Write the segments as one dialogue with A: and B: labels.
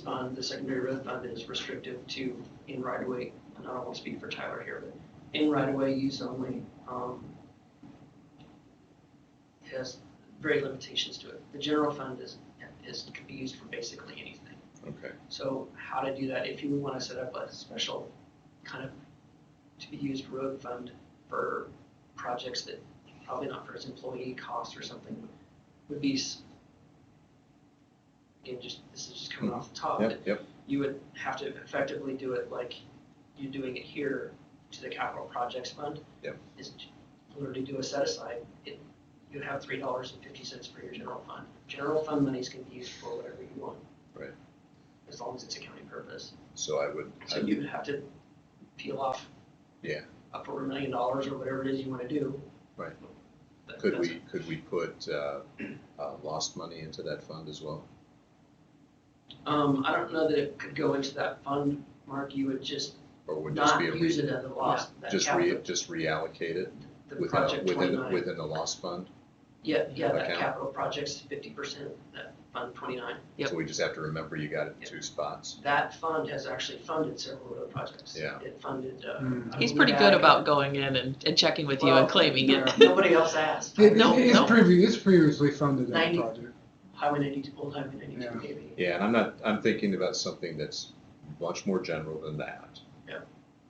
A: fund, the secondary road fund is restrictive to in right-of-way, and I don't want to speak for Tyler here, but in right-of-way use only, um, has very limitations to it. The general fund is, is, can be used for basically anything.
B: Okay,
A: So how to do that, if you want to set up a special kind of to be used road fund for projects that probably not for its employee costs or something would be s- again, just, this is just coming off the top,
B: yep,
A: but
B: yep,
A: you would have to effectively do it like you're doing it here to the capital projects fund.
B: Yep.
A: Is to literally do a set aside, it, you have three dollars and fifty cents for your general fund. General fund monies can be used for whatever you want.
B: Right.
A: As long as it's a county purpose.
B: so I would, I
A: So you would have to peel off.
B: Yeah.
A: Up over a million dollars or whatever it is you wanna do.
B: Right.
A: But
B: Could
A: that's-
B: we, could we put uh, uh, lost money into that fund as well?
A: Um, I don't know that it could go into that fund, Mark, you would just
B: Or would just
A: not
B: be a,
A: use
B: re-
A: it as a loss, that
B: just
A: capital.
B: re, just reallocate it
A: The
B: within, a-
A: project
B: within, a-
A: twenty-nine.
B: within uh, the lost fund?
A: Yeah, yeah, that
B: account?
A: capital project's fifty percent, that fund twenty-nine. Yep.
B: So we just have to remember you got it in
A: Yep.
B: two spots.
A: That fund has actually funded several of the projects.
B: Yeah.
A: It funded, uh.
C: Mm.
D: He's pretty good about going in and, and checking with you
A: Well,
D: and claiming it.
A: Nobody else asked.
C: It-
D: No,
C: it's
D: no.
C: previ- it's previously funded that
A: Ninety.
C: project.
A: Highway ninety-two, old highway ninety-two,
C: Yeah.
A: maybe.
B: Yeah, and I'm not, I'm thinking about something that's much more general than that.
A: Yeah.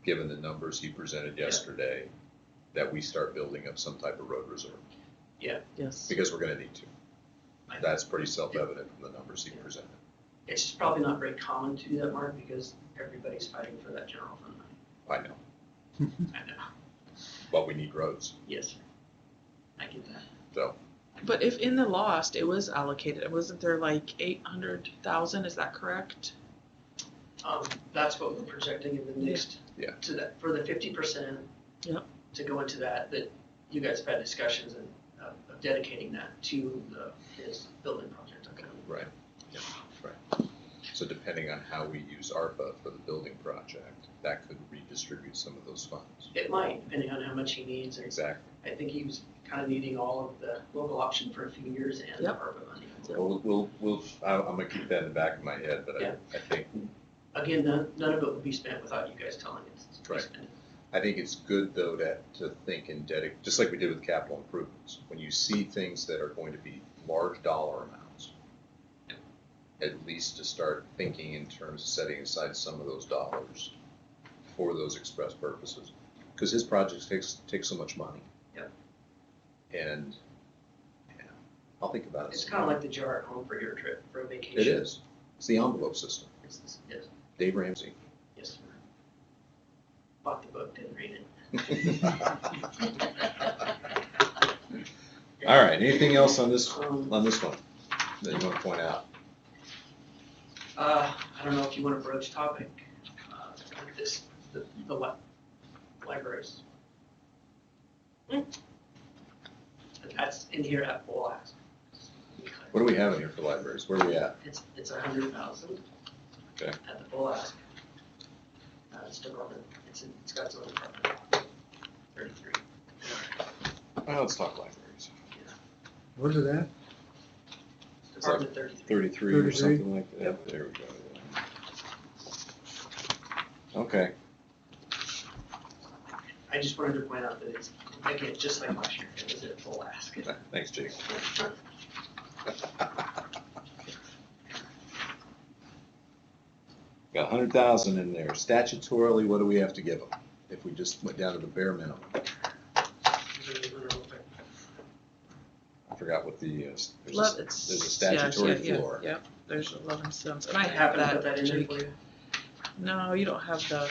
B: Given the numbers he presented
A: Yeah.
B: yesterday, that we start building up some type of road reserve,
D: Yes.
B: because we're gonna need to.
A: I-
B: That's pretty self-evident from the numbers he
A: Yeah.
B: presented.
A: It's just probably not very common to do that, Mark, because everybody's fighting for that general fund. money.
B: I know,
A: I know,
B: but we need roads,
A: yes, sir. I get that.
B: so,
D: But if in the lost it was allocated, wasn't there like eight hundred thousand? Is that correct?
A: Um, that's what we're projecting in the
D: Yeah.
A: next.
B: Yeah.
A: To that, for the fifty percent.
D: Yep.
A: To go into that, that you guys have had discussions and, uh, of dedicating that to the, his building project, okay?
B: right. Yeah, Right. So depending on how we use ARPA for the building project, that could redistribute some of those funds.
A: It might, depending on how much he needs, and
B: Exactly.
A: I think he was kind of needing all of the local option for a few years and the
D: Yep.
A: ARPA money.
B: We'll, we'll, we'll, I- I'm gonna keep that in the back of my head, but I,
A: Yeah.
B: I think,
A: Again, none, none of it would be spent without you guys telling us to be
B: Right.
A: spent.
B: I think it's good though to, to think and dedicate, just like we did with capital improvements. When you see things that are going to be large dollar amounts, at least to start thinking in terms of setting aside some of those dollars for those express purposes. Because his projects takes, take so much money.
A: Yep.
B: And, yeah, I'll think about it.
A: It's
B: some
A: kind of
B: more.
A: like the jar at home for your trip, for a vacation.
B: It is. It's the envelope system.
A: It's- it's- Yes,
B: Dave Ramsey.
A: yes, sir. Bought the book, didn't read it.
B: All right, anything else on this,
A: Um,
B: on this one that you want to point out?
A: uh, I don't know if you want to broach topic, uh, this, the, the li- libraries.
B: Hmm.
A: That's in here at full ask.
B: What do we have in here for libraries? Where are we at?
A: It's, it's a hundred thousand.
B: Okay.
A: At the full ask. Uh, it's department, it's, in- it's got its own department. Thirty-three.
B: Well, Uh, let's talk libraries.
C: Where's it at?
A: Department thirty-three.
B: Thirty-three or
C: 33?
B: something like that. There we go. Okay,
A: I just wanted to point out that it's, again, just like last year, it was at full ask.
B: thanks, Jake. Got a hundred thousand in there. Statutorily, what do we have to give them? If we just went down to the bare minimum. I forgot what the, uh, s- there's a
D: Love
B: s-
D: it's
B: there's a
D: yeah, yeah,
B: statutory
D: yeah,
B: floor.
D: Yep. There's eleven cents, and I
A: I
D: have
A: happen to put
D: that.
A: that in there
D: Jake.
A: for you.
D: No, you don't have the.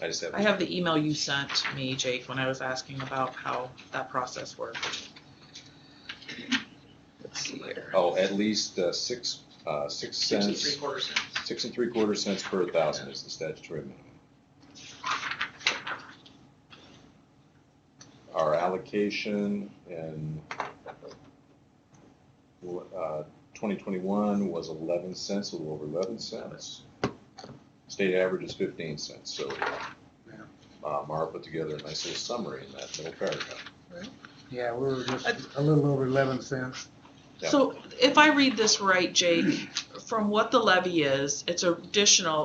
B: I just have.
D: I have the email you sent me, Jake, when I was asking about how that process worked. Let's see here.
B: Oh, at least uh, six, uh, six
A: Six and
B: cents,
A: three quarter cents.
B: six and three quarter cents per thousand is the statutory minimum. Our allocation in uh, 2021 was 11 cents, a little over 11 cents. State average is 15 cents, so uh, Mara put together a nice little summary in that middle paragraph.
C: Yeah, we were just a little over eleven cents.
B: Yeah.
D: So if I read this right, Jake, from what the levy is, it's additional